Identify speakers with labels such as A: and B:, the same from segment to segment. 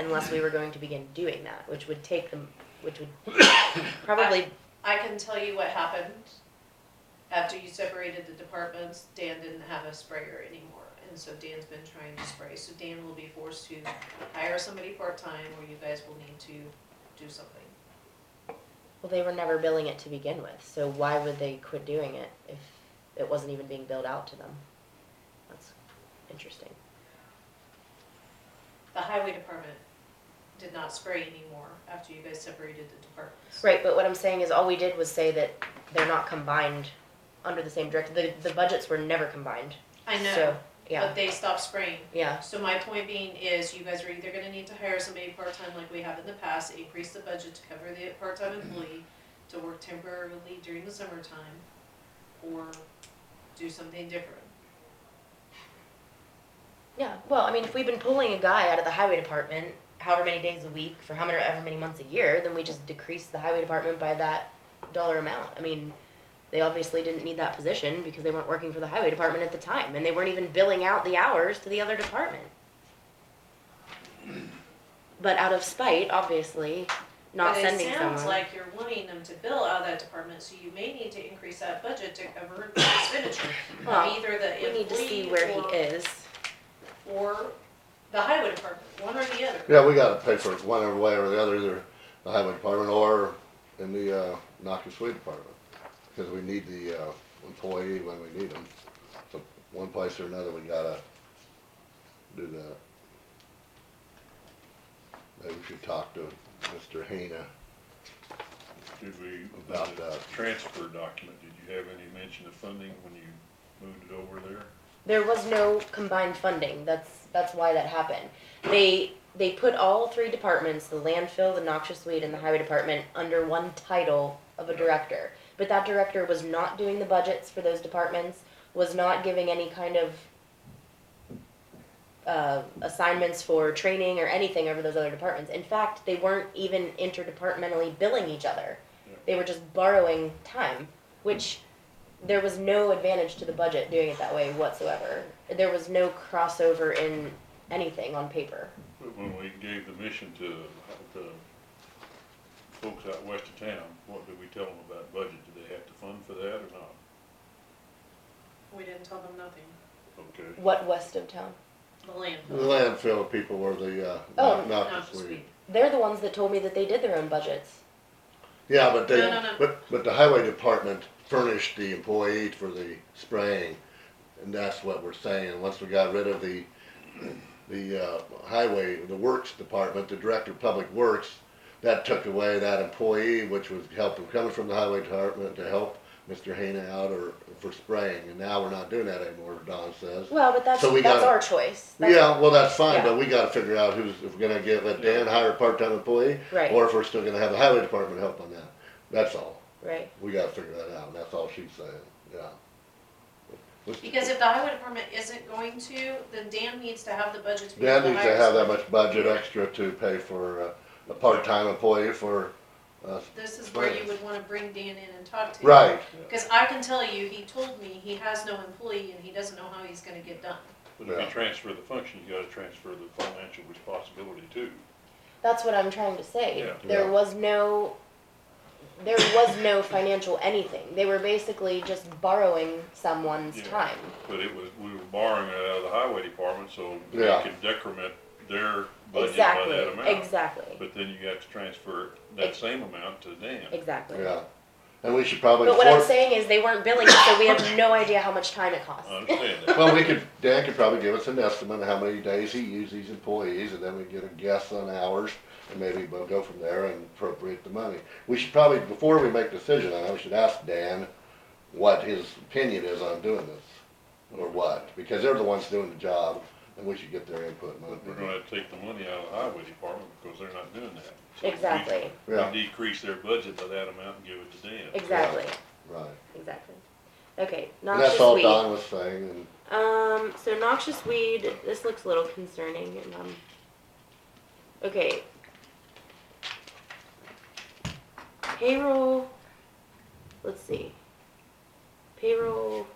A: unless we were going to begin doing that, which would take them, which would probably,
B: I can tell you what happened. After you separated the departments, Dan didn't have a sprayer anymore, and so Dan's been trying to spray. So Dan will be forced to hire somebody part-time, or you guys will need to do something.
A: well, they were never billing it to begin with, so why would they quit doing it if it wasn't even being billed out to them? That's interesting.
B: The highway department did not spray anymore after you guys separated the departments.
A: Right, but what I'm saying is all we did was say that they're not combined under the same director, the, the budgets were never combined.
B: I know,
A: So, Yeah,
B: but they stopped spraying.
A: yeah,
B: So my point being is you guys are either gonna need to hire somebody part-time like we have in the past, increase the budget to cover the part-time
A: Mm-hmm.
B: employee to work temporarily during the summertime, or do something different.
A: yeah, well, I mean, if we've been pulling a guy out of the highway department however many days a week for how many, however many months a year, then we just decrease the highway department by that dollar amount, I mean, they obviously didn't need that position because they weren't working for the highway department at the time, and they weren't even billing out the hours to the other department. But out of spite, obviously, not sending
B: But it
A: someone.
B: sounds like you're wanting them to bill out of that department, so you may need to increase that budget to cover the expenditure
A: Well,
B: of either the
A: We need to see where he
B: employee
A: is.
B: or, or the highway department, one or the other.
C: Yeah, we gotta pay for it one or way or the other, either the highway department or in the, uh, Knocker Street Department. Cause we need the, uh, employee when we need them. So one place or another, we gotta do that. Maybe we should talk to Mr. Hena
D: Did we,
C: about that.
D: transfer document, did you have any mention of funding when you moved it over there?
A: There was no combined funding. That's that's why that happened. They they put all three departments, the landfill, the noxious weed, and the highway department, under one title of a director. But that director was not doing the budgets for those departments, was not giving any kind of uh, assignments for training or anything over those other departments. In fact, they weren't even interdepartmentally billing each other.
D: Yeah.
A: They were just borrowing time, which there was no advantage to the budget doing it that way whatsoever. There was no crossover in anything on paper.
D: But When we gave the mission to the folks out west of town, what did we tell them about budget? Did they have to fund for that or not?
B: We didn't tell them nothing,
D: Okay,
A: What west of town?
B: the landfill.
C: The landfill people were the, uh,
A: Oh,
C: Knock-
B: No,
C: Knocker
B: just
C: Street.
B: we-
A: They're the ones that told me that they did their own budgets.
C: Yeah, but
B: No, no,
C: they,
B: no.
C: but, but the highway department furnished the employee for the spraying, and that's what we're saying, once we got rid of the, the, uh, highway, the works department, the director of public works, that took away that employee, which was helping, coming from the highway department to help Mr. Hana out or, for spraying, and now we're not doing that anymore, Don says.
A: Well, but that's
C: So we
A: that's
C: gotta-
A: our choice. That's-
C: Yeah, well, that's fine,
A: Yeah.
C: but we gotta figure out who's, if we're gonna get, let Dan hire a part-time employee,
A: Right.
C: or if we're still gonna have the highway department help on that, that's all.
A: Right.
C: We gotta figure that out, and that's all she's saying, yeah. Let's-
B: Because if the highway department isn't going to, then Dan needs to have the budget to be able
C: Dan
B: to
C: needs to
B: hire
C: have that
B: somebody.
C: much budget extra to pay for uh, a part-time employee for, uh,
B: This is where you would wanna bring Dan in and talk to him.
C: right,
B: Cause I can tell you, he told me he has no employee and he doesn't know how he's gonna get done.
D: but if
C: Yeah.
D: you transfer the function, you gotta transfer the financial responsibility too.
A: That's what I'm trying to say.
D: Yeah.
A: There
C: Yeah.
A: was no there was no financial anything. They were basically just borrowing someone's
D: Yeah.
A: time.
D: But it was, we were borrowing it out of the highway department, so we
C: Yeah.
D: could decrement their budget by
A: exactly.
D: that amount.
A: Exactly.
D: But then you have to transfer that same amount to Dan.
A: exactly.
C: yeah. And we should probably,
A: But what I'm
C: well,
A: saying is they weren't billing, so we have no idea how much time it costs.
D: I understand that.
C: we could, Dan could probably give us an estimate of how many days he used these employees, and then we get a guess on hours, and maybe we'll go from there and appropriate the money. We should probably, before we make decision on it, we should ask Dan what his opinion is on doing this, or what, because they're the ones doing the job, and we should get their input. and
D: We're
C: opinion.
D: gonna have to take the money out of the highway department because they're not doing that. So we-
A: Exactly,
C: Yeah.
D: We decrease their budget by that amount and give it to Dan.
A: exactly,
C: Right.
A: exactly. Okay,
C: And that's
A: noxious
C: all
A: weed.
C: Don was saying, and
A: Um, so noxious weed, this looks a little concerning and, um, okay. Payroll, let's see. Payroll.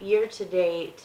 A: Year to date.